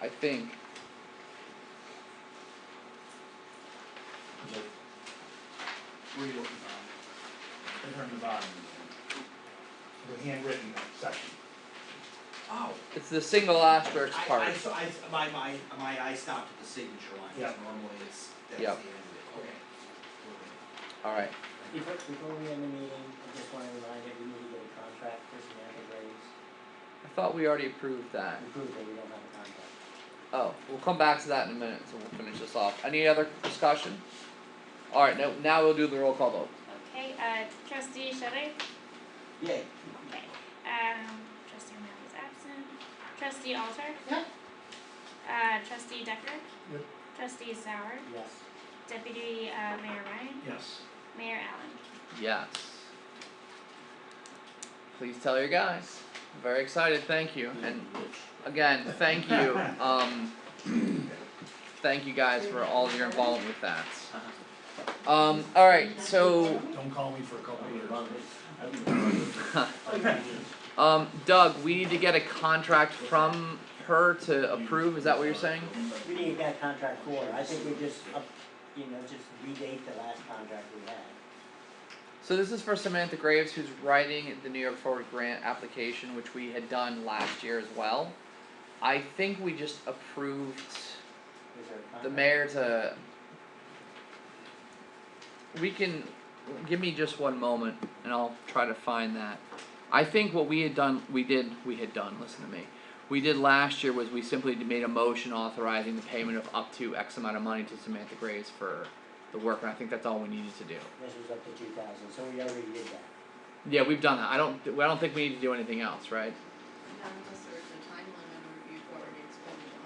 I think. Where are you looking on? um, In terms of volume. The handwritten section. Oh. It's the single asterisk I- part. I, saw- I, my, my, my eye stopped at the signature line, Yeah. cause normally it's, that's the Yeah. end of it, okay. All right. Before, before we end the meeting, I just wanna remind you, we need to get a contract for Samantha Graves. I thought we already approved that. We proved that we don't have a contract. Oh, we'll come back to that in a minute, so we'll finish this off. Any other discussion? All right. Now, now we'll do the roll call vote. Okay, uh, trustee Shetty? Yay. Okay, um, trustee O'Malley is absent. Trustee Alter? Yeah. Uh, trustee Decker? Yep. Trustee Sauer? Yes. Deputy, uh, Mayor Ryan? Yes. Mayor Allen? Yes. Please tell your guys. I'm very excited. Thank you. And again, thank you. Um, thank you guys for all of your involvement with that. Uh-huh. Um, all right. So, Don't call me for a couple of years. um, Doug, we need to get a contract from her to approve. Is that what you're saying? We didn't get that contract for, her. I think we just up, you know, just redate the last contract we had. So this is for Samantha Graves, who's writing the New York Forward grant application, which we had done last year as well. I think we just approved Is there a contract? the mayor to. We can, give me just one moment and I'll try to find that. I think what we had done, we did, we had done, listen to me. We did last year was we simply made a motion authorizing the payment of up to X amount of money to Samantha Graves for the work, and I think that's all we needed to do. This was up to two thousand, so we already did that. Yeah, we've done that. I don't. I don't think we need to do anything else, right? No, unless there's a time limit or you've already expended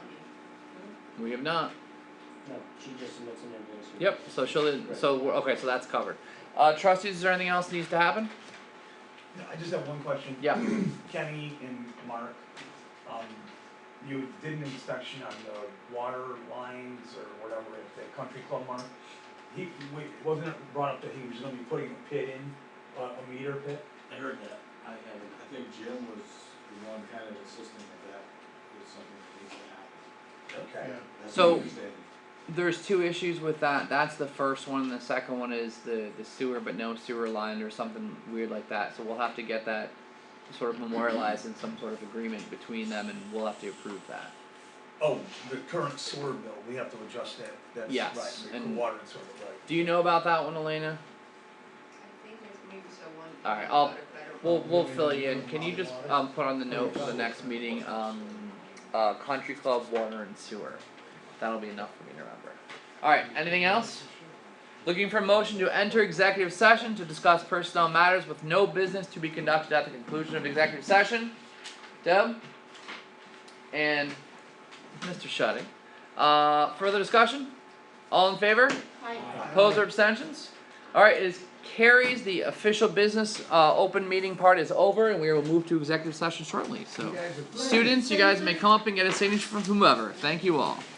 money. We have not. No, she just submits an invoice. we- Yep. So she'll. So we're, okay. So that's covered. Uh, trustees, is there anything else that needs to happen? I just have one question. Yeah. Kenny and Mark, um, you did an inspection on the water lines or whatever at the country club, Mark. He, we, wasn't it brought up that he was gonna be putting a pit in, a, a meter pit? I heard that, I haven't. I think Jim was the one kind of insisting that that was something that needs to happen. Okay. That's So- my understanding. There's two issues with that. That's the first one. The second one is the the sewer, but no sewer line or something weird like that. So we'll have to get that sort of memorialized in some sort of agreement between them, and we'll have to approve that. Oh, the current sewer bill, we have to adjust that, that's Yes, right, the- the and- water and sewer, bill, right. Do you know about that one, Elena? I think there's maybe so one. All right, thing I'll- about it, but I don't We'll know. we'll fill you in. Can you just um put on the note for the next meeting, um uh country club, water and sewer. That'll be enough for me to remember. Alright, anything else? Looking for a motion to enter executive session to discuss personnel matters with no business to be conducted at the conclusion of executive session. Deb? And Mr. Shutting. Uh further discussion? All in favor? Opposed or abstentions? Alright, it is carries, the official business uh open meeting part is over and we will move to executive session shortly, so. Students, you guys may come up and get a signature from whomever, thank you all.